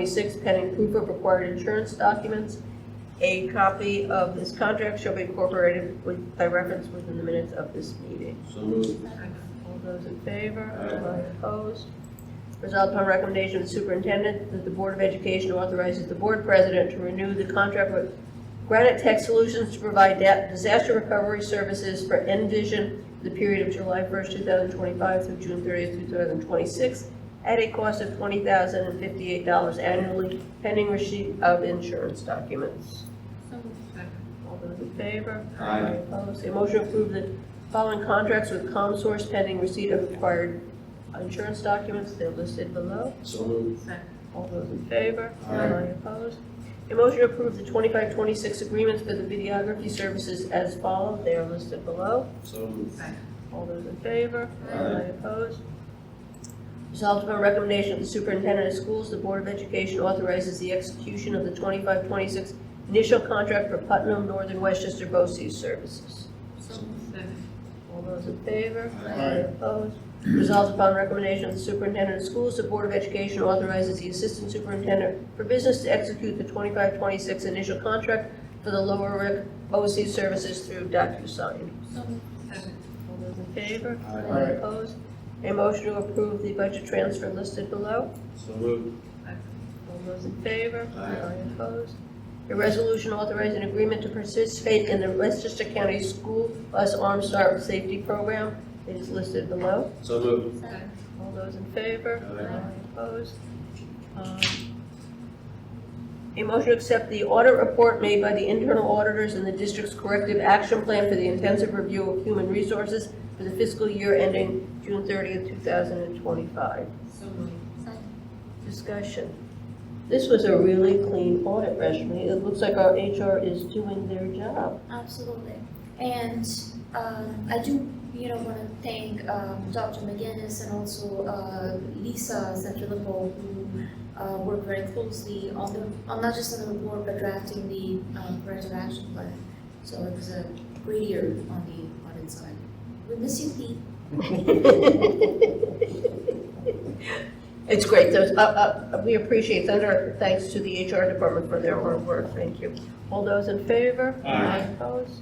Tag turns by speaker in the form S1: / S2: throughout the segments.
S1: 26 pending proof of required insurance documents. A copy of this contract shall be incorporated with, by reference within the minutes of this meeting.
S2: So moved.
S1: All those in favor?
S2: Aye.
S1: Aye. Opposed? Resolved upon recommendation of the superintendent that the Board of Education authorizes the board president to renew the contract with Granite Tech Solutions to provide da- disaster recovery services for Envision for the period of July 1st, 2025 through June 30th, 2026, at a cost of $20,058 annually, pending receipt of insurance documents.
S3: So moved.
S1: All those in favor?
S2: Aye.
S1: Opposed? A motion to approve the following contracts with ComSource pending receipt of required insurance documents, they're listed below.
S2: So moved.
S3: Second.
S1: All those in favor?
S2: Aye.
S1: Opposed? A motion to approve the 25-26 agreements for the videography services as follows, they are listed below.
S2: So moved.
S1: All those in favor?
S2: Aye.
S1: Opposed? Resolved upon recommendation of the superintendent of schools, the Board of Education authorizes the execution of the 25-26 initial contract for Putnam Northern Westchester BOCES services.
S3: So moved. Second.
S1: All those in favor?
S2: Aye.
S1: Opposed? Resolved upon recommendation of the superintendent of schools, the Board of Education authorizes the assistant superintendent for business to execute the 25-26 initial contract for the Lower Rick OC services through DocuSign.
S3: So moved. Second.
S1: All those in favor?
S2: Aye.
S1: Opposed? A motion to approve the budget transfer listed below.
S2: So moved.
S1: All those in favor?
S2: Aye.
S1: Opposed? A resolution authorizing agreement to participate in the Westchester County School Bus Arm Start Safety Program It is listed below.
S2: So moved.
S3: Second.
S1: All those in favor?
S2: Aye.
S1: Opposed? Um, A motion to accept the audit report made by the internal auditors and the district's corrective action plan for the intensive review of human resources for the fiscal year ending June 30th, 2025.
S3: So moved. Second.
S1: Discussion. This was a really clean audit, Rashmi. It looks like our HR is doing their job.
S4: Absolutely. And uh, I do, you know, want to thank um, Dr. McGinnis and also uh, Lisa Sanfilippo, who uh, worked very closely on the, on not just on the report, but drafting the um, corrective action plan. So it was a great year on the audit side. We miss you, Pete.
S1: It's great, those, uh, uh, we appreciate that, our thanks to the HR department for their hard work, thank you. All those in favor?
S2: Aye.
S1: Opposed?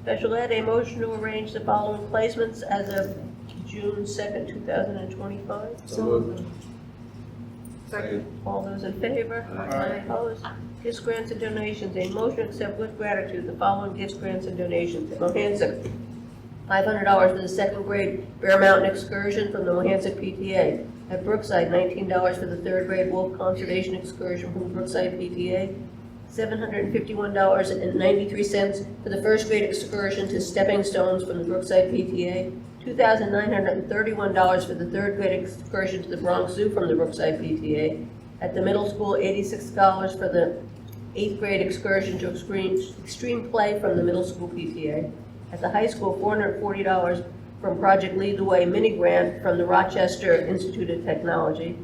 S1: Special Ed, a motion to arrange the following placements as of June second, two thousand and twenty-five.
S2: So moved. Second.
S1: All those in favor?
S2: Aye.
S1: Opposed? Gifts, grants, and donations, a motion to accept with gratitude the following gifts, grants, and donations. Mohansick, five hundred dollars for the second grade Bear Mountain excursion from the Mohansick PTA. At Brookside, nineteen dollars for the third grade Wolf Conservation excursion from Brookside PTA. Seven hundred and fifty-one dollars and ninety-three cents for the first grade excursion to Stepping Stones from the Brookside PTA. Two thousand nine hundred and thirty-one dollars for the third grade excursion to the Bronx Zoo from the Brookside PTA. At the middle school, eighty-six dollars for the eighth grade excursion to extreme, extreme play from the middle school PTA. At the high school, four hundred and forty dollars from Project Lead the Way mini grant from the Rochester Institute of Technology.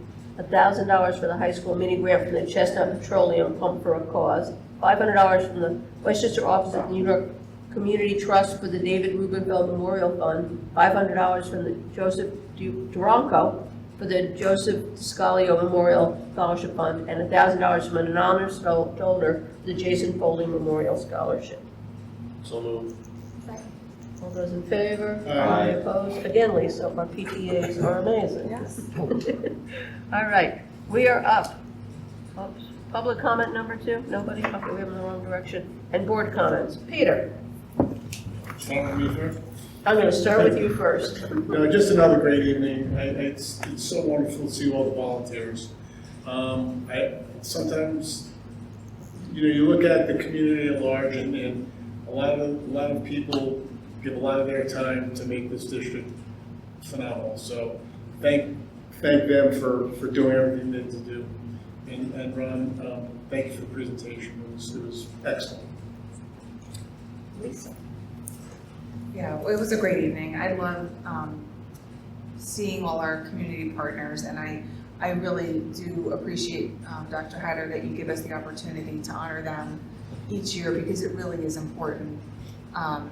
S1: thousand dollars for the high school mini grant from the Chestnut Petroleum Pump for a Cause. Five hundred dollars from the Westchester Office of the New York Community Trust for the David Rubenfeld Memorial Fund. Five hundred dollars from the Joseph Du- Duranko for the Joseph Scalio Memorial Scholarship Fund and $1,000 from an anonymous do- donor to the Jason Foley Memorial Scholarship.
S2: So moved.
S1: All those in favor?
S2: Aye.
S1: Opposed? Again, Lisa, our PTAs are amazing.
S3: Yes.
S1: All right, we are up. Oops. Public comment number two, nobody, okay, we have in the wrong direction. And board comments. Peter, I'm going to start with you first.
S5: No, Uh, just another great evening. I- It's, it's so wonderful to see all the volunteers. Um, I, sometimes, you know, you look at the community at large and, and a lot of, a lot of people give a lot of their time to make this district phenomenal. So thank, thank them for, for doing everything they to do. And, and Ron, um, thank you for the presentation. It was, it was excellent.
S1: Lisa.
S6: Yeah, well, it was a great evening. I love um, seeing all our community partners, and I, I really do appreciate, um, Dr. Hyder, that you give us the opportunity to honor them each year because it really is important. Um,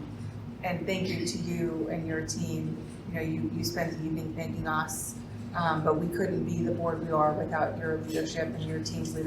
S6: And thank you to you and your team. You know, you, you spent the evening thanking us um, Um, But we couldn't be the board we are without your leadership and your team's leadership